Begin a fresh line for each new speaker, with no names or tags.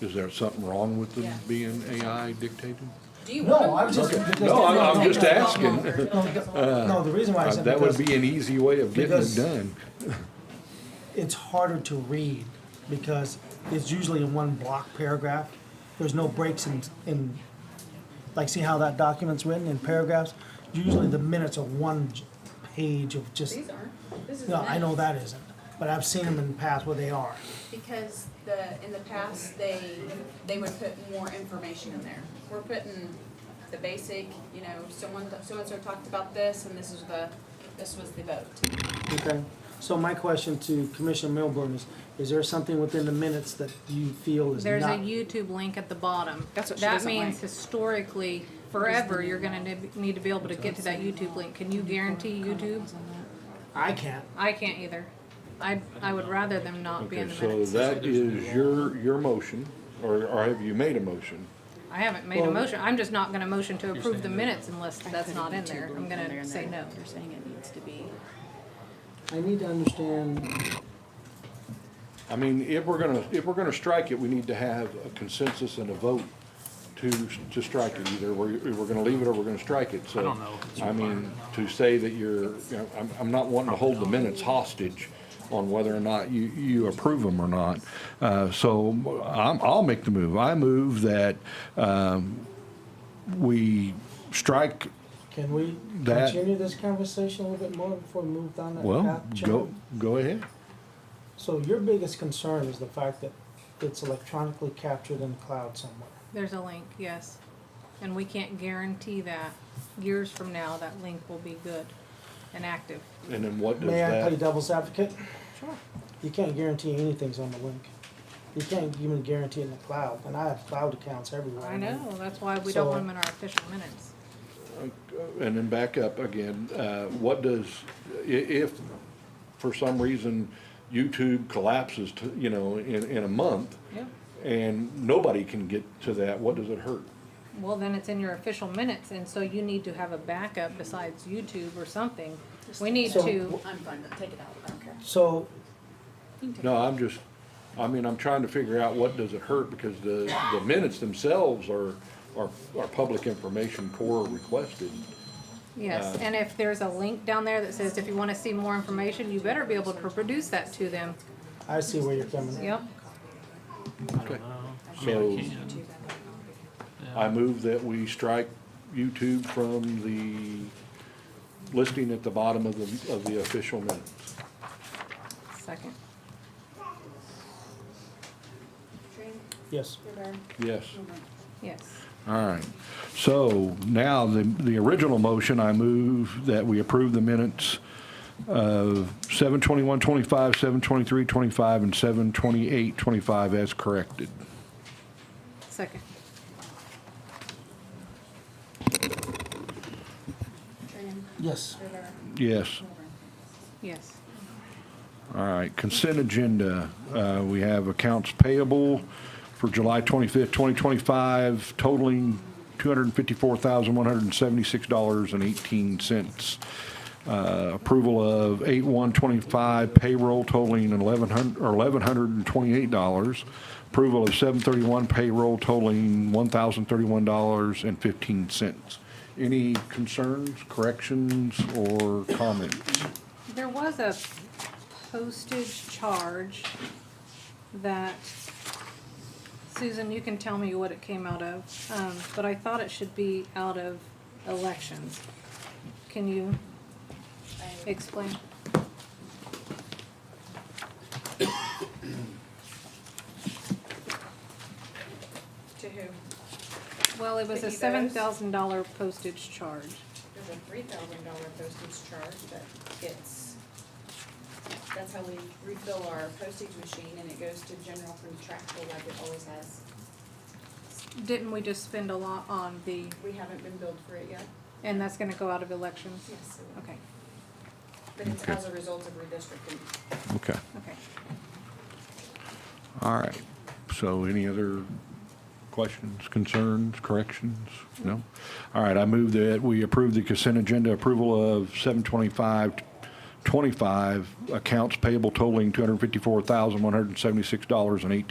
Is there something wrong with them being AI dictated?
Do you want?
No, I was just.
Okay.
just-
No, I'm- I'm just asking.
No, No, the reason why I
Uh,
said.
That would
because-
be an easy way of getting it
because-
done.
it's harder to read because it's usually in one block paragraph. There's no breaks in, in, like, see how that document's written in paragraphs? Usually the minutes are one j- page of just,
These aren't, this is.
no, I
next.
know that isn't, but I've seen them in the past where they are.
Because the, in the past, they, they would put more information in there. We're putting the basic, you know, someone, so-and-so talked about this, and this is the, this was the vote.
Okay. So my question to Commissioner Milburn is, is there something within the minutes that you feel is
There's a
not?
YouTube link at the bottom.
That's what she
That
doesn't
means
like.
historically, forever, you're gonna nib- need to be able to get to that YouTube link. Can you guarantee YouTube?
I can't.
I can't either. I, I would rather them not be
Okay,
in the
so
minutes.
that is your, your motion, or, or have you made a motion?
I haven't made a
Well-
motion. I'm just not gonna motion to approve the minutes unless that's not in there. I'm
They're
gonna
in
say no.
there. You're saying it needs to be.
I need to understand,
I mean, if we're gonna, if we're gonna strike it, we need to have a consensus and a vote to, to strike it. Either we're, we're gonna leave it or we're gonna strike it, so.
I don't know if it's
I mean, to say that you're, you know, I'm, I'm not wanting to hold the minutes hostage on whether or not you, you approve them or not. Uh, so I'm, I'll make the move. I move that, um, we strike,
can we
That-
continue this conversation a little bit more before we move down that path?
well, go,
Chairman?
go ahead.
So your biggest concern is the fact that it's electronically captured in the cloud somewhere.
There's a link, yes. And we can't guarantee that years from now, that link will be good and active.
And then what does
May I play
that,
devil's advocate?
Sure.
You can't guarantee anything's on the link. You can't even guarantee it in the cloud, and I have cloud accounts everywhere.
I know, that's why we don't
So-
want them in our official minutes.
uh, and then back up again, uh, what does, i- if for some reason YouTube collapses to, you know, in, in a month
Yep.
and nobody can get to that, what does it hurt?
Well, then it's in your official minutes, and so you need to have a backup besides YouTube or something. We need
So-
to,
I'm fine, but take it out, I don't care.
So,
No, I'm just, I mean, I'm trying to figure out what does it hurt because the, the minutes themselves are, are, are public information core requested.
yes, and if there's a link down there that says if you wanna see more information, you better be able to produce that to them.
I see where you're coming from.
Yep,
Okay.
I
So
mean, I can.
I move that we strike YouTube from the listing at the bottom of the, of the official minutes.
second.
Trina,
Yes,
your turn.
Yes.
Mm-hmm.
Yes,
All right. So now the, the original motion, I move that we approve the minutes of seven twenty-one twenty-five, seven twenty-three twenty-five, and seven twenty-eight twenty-five as corrected.
second.
Trina,
yes.
Rivera,
Yes.
Milburn.
Yes,
All right, consent agenda. Uh, We have accounts payable for July 25th, 2025 totaling $254,176.18. Uh, Approval of 8/125 payroll totaling 1,100 or $1,128. Approval of 7/31 payroll totaling $1,031.15. Any concerns, corrections, or comments?
there was a postage charge that, Susan, you can tell me what it came out of, um, but I thought it should be out of elections. Can you
I-
explain?
To who?
Well, it was a
Cookie
seven
dough.
thousand dollar postage charge.
There's a three thousand dollar postage charge that gets, that's how we refill our postage machine, and it goes to general contractual like it always has.
Didn't we just spend a lot on the,
We haven't been billed for it yet.
and that's gonna go out of elections?
Yes.
Okay,
But it's as a result of redistricting.
Okay.
okay.
All right, so any other questions, concerns, corrections? No? All right, I move that we approve the consent agenda approval of 725, 25 accounts payable totaling $254,176.18.